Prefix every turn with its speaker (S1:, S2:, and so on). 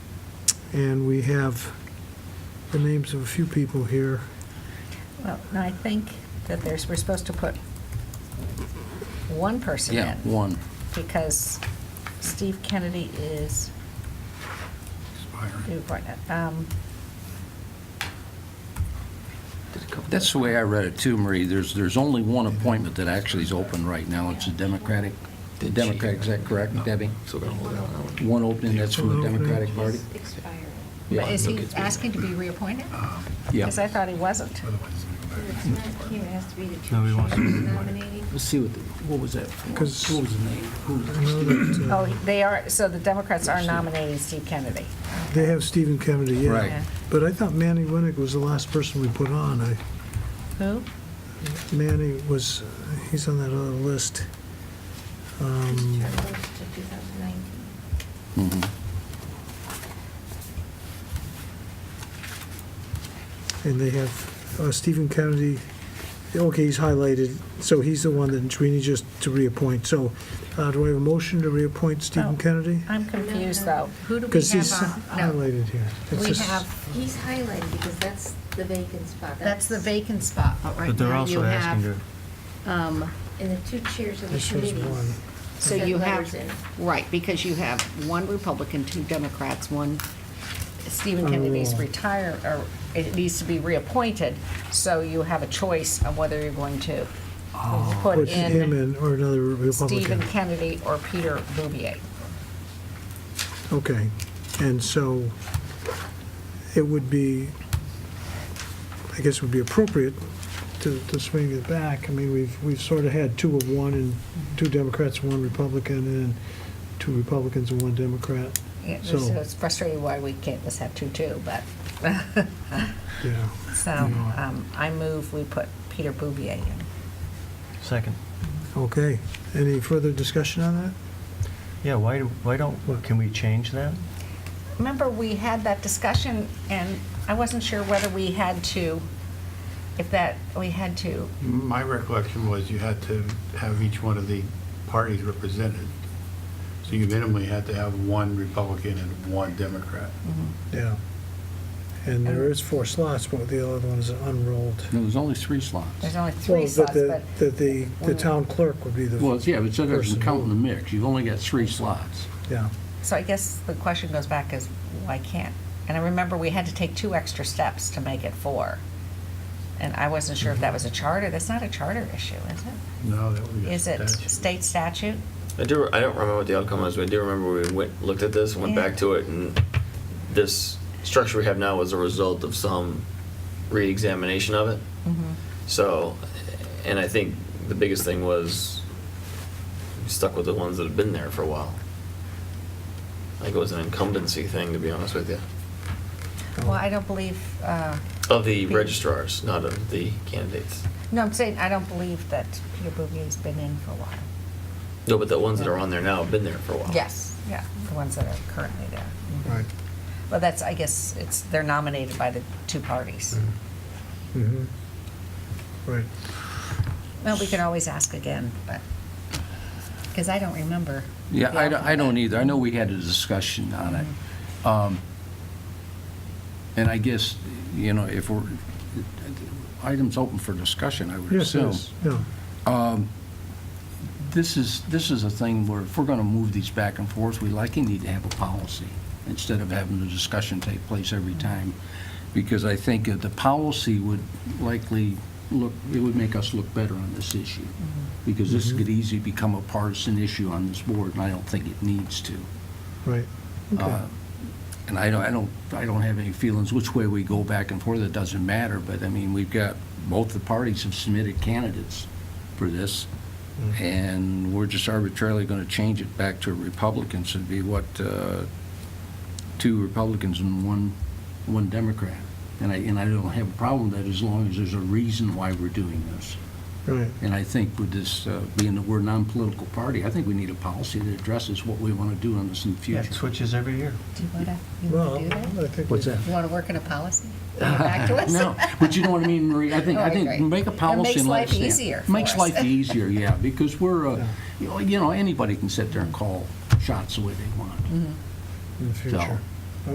S1: and we have the names of a few people here.
S2: Well, no, I think that there's, we're supposed to put one person in.
S3: Yeah, one.
S2: Because Steve Kennedy is,
S4: expiring.
S2: due for- um,
S3: That's the way I read it too, Marie. There's, there's only one appointment that actually is open right now. It's a Democratic, Democratic, is that correct,
S4: No.
S3: Debbie?
S4: So we're gonna hold out on that one.
S3: One opening, that's from the
S1: One opening.
S3: Democratic Party?
S5: Expired.
S3: Yeah.
S2: but is he
S4: Look, it's-
S2: asking to be reappointed?
S3: Yeah.
S2: Because I thought he wasn't.
S4: Otherwise, it's gonna go back.
S5: It's not here, it has to be the
S4: No, we
S5: two
S4: want
S5: chiefs
S4: to do one.
S5: nominating.
S6: Let's see what, the- what was that? for?
S1: 'Cause-
S6: What was the name? Who was
S1: I know that, uh,
S2: Oh, they are, so the Democrats are nominating Steve Kennedy.
S1: They have Stephen Kennedy, yeah.
S3: Right.
S2: Yeah.
S1: But I thought Manny Winnick was the last person we put on. I,
S2: Who?
S1: Manny was, he's on that other list. Um,
S5: Term goes to 2019.
S3: Mhm.
S1: And they have uh, Stephen Kennedy, okay, he's highlighted, so he's the one that we need just to reappoint. So uh, do I have a motion to reappoint Stephen
S2: Oh.
S1: Kennedy?
S2: I'm confused, though. Who do we
S1: Because he's
S2: have on? No,
S1: highlighted here. It's
S2: We
S1: just-
S2: have,
S5: He's highlighted because that's the vacant spot.
S2: that's the vacant spot, but right
S4: But they're
S2: now you
S4: also asking
S2: have,
S4: to,
S7: Um,
S5: And the two chairs of the
S1: This was one.
S5: committees.
S7: So
S5: Send
S7: you have,
S5: letters in.
S7: right, because you have one Republican, two Democrats, one,
S2: Stephen
S1: Oh.
S2: Kennedy's retire, or it needs to be reappointed, so you have a choice of whether you're going to put
S1: Put Oh, him
S2: in
S1: in or another
S2: Stephen
S1: Republican.
S2: Kennedy or Peter Bouvier.
S1: Okay, and so it would be, I guess it would be appropriate to, to swing it back. I mean, we've, we've sort of had two of one and two Democrats, one Republican, and two Republicans and one Democrat.
S2: Yeah,
S1: So-
S2: so It's frustrating why we can't just have two, two, but,
S1: Yeah,
S2: so, um, I move we put Peter Bouvier in.
S8: Second.
S1: okay. Any further discussion on that?
S8: Yeah, why, do- why don't, can we change that?
S2: Remember, we had that discussion, and I wasn't sure whether we had to, if that, we had to,
S4: my recollection was you had to have each one of the parties represented. So you minimally had to have one Republican and one Democrat.
S1: Yeah. And there is four slots, but the other one is unrolled.
S3: No, there's only three slots.
S2: there's only three
S1: Well,
S2: slots,
S1: the-
S2: but
S1: That the, the town clerk would be the.
S3: Well, it's- yeah, but it
S1: person
S3: doesn't
S1: who-
S3: count in the mix. You've only got three slots.
S1: Yeah,
S2: So I guess the question goes back is, why can't? And I remember we had to take two extra steps to make it four. And I wasn't sure if that was a charter. That's not a charter issue, is it?
S4: No, that would be a
S2: Is it
S4: statute.
S2: state statute?
S9: I do. I don't remember what the outcome was, but I do remember we went, looked at this, and went
S2: Yeah.
S9: back to it, and this structure we have now was a result of some re-examination of it. So, and I think the biggest thing was we stuck with the ones that have been there for a while. I think it was an incumbency thing, to be honest with you,
S2: Well, I don't believe, uh,
S9: of the
S2: Hmm.
S9: registrars, not of the candidates.
S2: no, I'm saying I don't believe that Peter Bouvier's been in for a while.
S9: No, but the ones that are on there now have been there for a while.
S2: Yes, yeah, the ones that are currently there. Mhm.
S1: right.
S2: Well, that's, I guess, it's, they're nominated by the two parties.
S1: Mm-hmm. Mhm. Right.
S2: Well, we can always ask again, but, because I don't remember.
S3: Yeah,
S2: the
S3: I don't, I
S2: outcome.
S3: don't either. I know we had a discussion on it. Um, And I guess, you know, if we're, items open for discussion, I would
S1: Yes,
S3: assume.
S1: yes, yeah.
S3: This is, this is a thing where if we're going to move these back and forth, we likely need to have a policy instead of having the discussion take place every time. Because I think that the policy would likely look, it would make us look better on this issue.
S1: Mm-hmm.
S3: Because this could easily become a partisan issue on this board, and I don't think it needs to.
S1: Right, okay,
S3: Uh, And I don't, I don't, I don't have any feelings which way we go back and forth, it doesn't matter, but I mean, we've got, both the parties have submitted candidates for this, and we're just arbitrarily gonna change it back to Republicans, it'd be what, uh, two Republicans and one, one Democrat. And I, and I don't have a problem with that as long as there's a reason why we're doing this.
S1: right.
S3: And I think with this, uh, being that we're a non-political party, I think we need a policy that addresses what we wanna do on this in the
S8: Yeah,
S3: future.
S8: it switches every year.
S2: Do you want to, you
S1: Well,
S2: want to do that?
S1: I think.
S3: What's
S1: we-
S3: that?
S2: You want to work in a policy? Bring it back to us?
S3: No, but you know what I mean, Marie? I think, I
S2: Right,
S3: think,
S2: right.
S3: make a
S2: Oh, It
S3: policy
S2: makes
S3: and let
S2: life
S3: it stand.
S2: easier for
S3: Makes
S2: us.
S3: life easier, yeah, because we're, uh, you know- you know, anybody can sit there and call shots the way they want.
S1: In the
S3: So,
S1: future.